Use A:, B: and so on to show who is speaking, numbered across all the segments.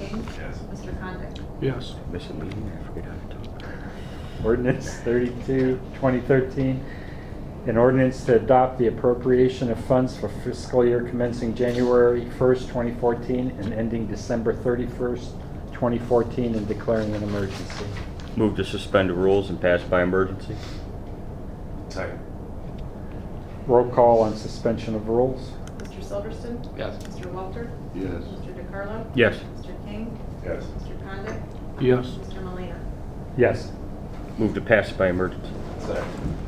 A: Yes.
B: Mr. Condit?
C: Yes.
D: Miss a meeting, I forget how to talk.
E: Ordinance 32, 2013, an ordinance to adopt the appropriation of funds for fiscal year commencing January 1st, 2014, and ending December 31st, 2014, and declaring an emergency.
D: Move to suspend the rules and pass by emergency?
A: Second.
E: Roll call on suspension of rules.
B: Mr. Silverston?
C: Yes.
B: Mr. Walter?
A: Yes.
B: Mr. DeCarlo?
D: Yes.
B: Mr. King?
A: Yes.
B: Mr. Condit?
C: Yes.
B: Mr. Malina?
E: Yes.
D: Move to pass by emergency?
A: Second.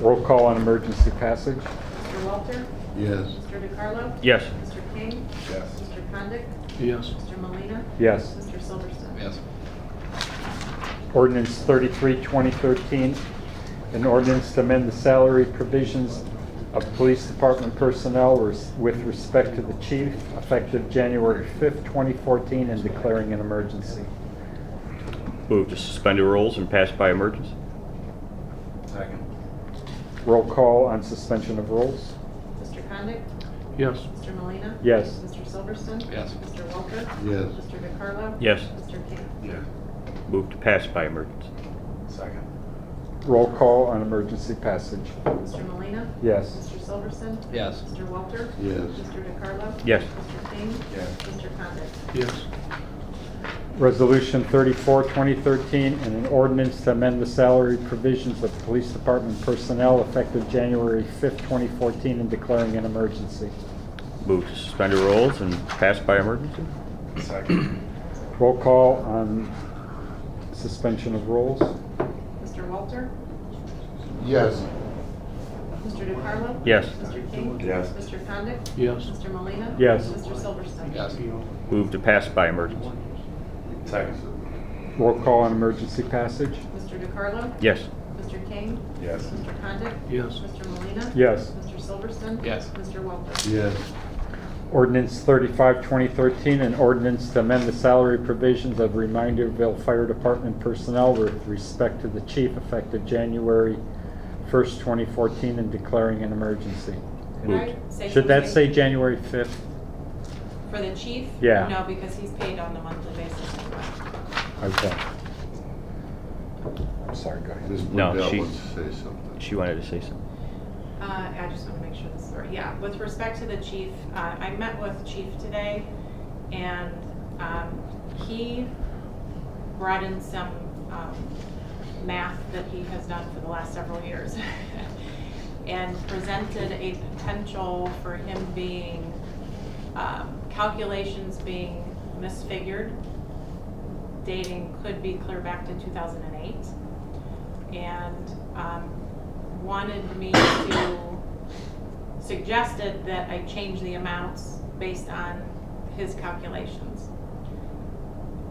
E: Roll call on emergency passage.
B: Mr. Walter?
A: Yes.
B: Mr. DeCarlo?
D: Yes.
B: Mr. King?
A: Yes.
B: Mr. Condit?
C: Yes.
B: Mr. Malina?
E: Yes.
B: Mr. Silverston?
C: Yes.
E: Ordinance 33, 2013, an ordinance to amend the salary provisions of police department personnel res- with respect to the chief effective January 5th, 2014, and declaring an emergency.
D: Move to suspend the rules and pass by emergency?
A: Second.
E: Roll call on suspension of rules.
B: Mr. Condit?
C: Yes.
B: Mr. Malina?
E: Yes.
B: Mr. Silverston?
C: Yes.
B: Mr. Walter?
A: Yes.
B: Mr. DeCarlo?
D: Yes.
B: Mr. King?
A: Yes.
D: Move to pass by emergency?
A: Second.
E: Roll call on emergency passage.
B: Mr. Malina?
E: Yes.
B: Mr. Silverston?
C: Yes.
B: Mr. Walter?
A: Yes.
B: Mr. DeCarlo?
D: Yes.
B: Mr. King?
A: Yes.
B: Mr. Condit?
C: Yes.
E: Resolution 34, 2013, and an ordinance to amend the salary provisions of police department personnel effective January 5th, 2014, and declaring an emergency.
D: Move to suspend the rules and pass by emergency?
A: Second.
E: Roll call on suspension of rules?
B: Mr. Walter?
A: Yes.
B: Mr. DeCarlo?
D: Yes.
B: Mr. King?
A: Yes.
B: Mr. Condit?
C: Yes.
B: Mr. Malina?
E: Yes.
B: Mr. Silverston?
D: Move to pass by emergency?
A: Second.
E: Roll call on emergency passage?
B: Mr. DeCarlo?
D: Yes.
B: Mr. King?
A: Yes.
B: Mr. Condit?
C: Yes.
B: Mr. Malina?
E: Yes.
B: Mr. Silverston?
C: Yes.
B: Mr. Walter?
A: Yes.
E: Ordinance 35, 2013, an ordinance to amend the salary provisions of Reminderville Fire Department personnel with respect to the chief effective January 1st, 2014, and declaring an emergency.
B: Could I say
E: Should that say
B: something?
E: January 5th?
B: For the chief?
E: Yeah.
B: No, because he's paid on a monthly basis.
E: Okay. I'm sorry, go ahead.
D: No, Burdette she- wants to She wanted to say something.
B: Uh, I just want to make sure this is right. Yeah, with respect to the chief, uh, I met with chief today and, um, he brought in some, um, math that he has done for the last several years. And presented a potential for him being, um, calculations being misfigured. Dating could be clear back to two thousand and eight. And, um, wanted me to, suggested that I change the amounts based on his calculations.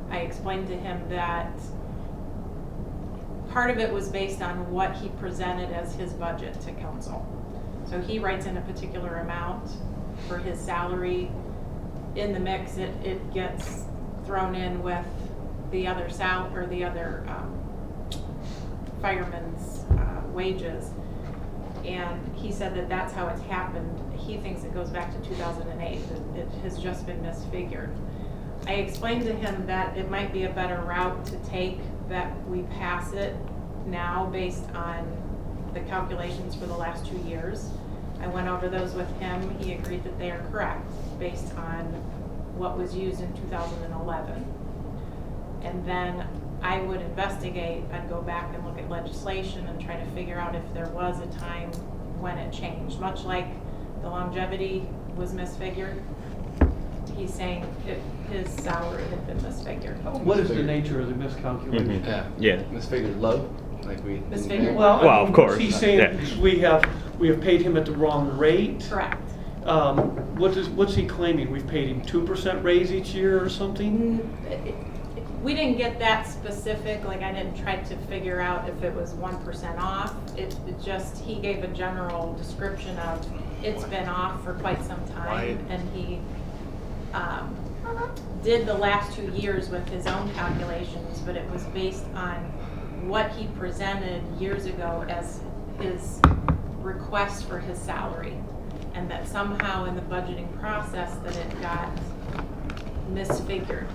B: I explained to him that part of it was based on what he presented as his budget to council. So he writes in a particular amount for his salary. In the mix, it, it gets thrown in with the other sal, or the other, um, firemen's uh, wages. And he said that that's how it's happened. He thinks it goes back to 2008, that it has just been misfigured. I explained to him that it might be a better route to take, that we pass it now based on the calculations for the last two years. I went over those with him. He agreed that they are correct based on what was used in 2011. And then I would investigate, I'd go back and look at legislation and try to figure out if there was a time when it changed. Much like the longevity was misfigured, he's saying that his salary had been misfigured.
F: What is the nature of the miscalculation?
D: Mhm. Yeah.
G: Misfigured low, like we.
B: Misfigured.
F: Well, I
D: Well, of
F: mean,
D: course, uh,
F: He's
D: yeah.
F: saying we have, we have paid him at the wrong rate.
B: Correct.
F: Um, what is, what's he claiming? We've paid him two percent raise each year or something?
B: Mm, it- it- We didn't get that specific, like I didn't try to figure out if it was one percent off. It it just, he gave a general description of, it's been off for quite some time.
G: Why?
B: And he um, did the last two years with his own calculations, but it was based on what he presented years ago as his request for his salary. And that somehow in the budgeting process that it got misfigured.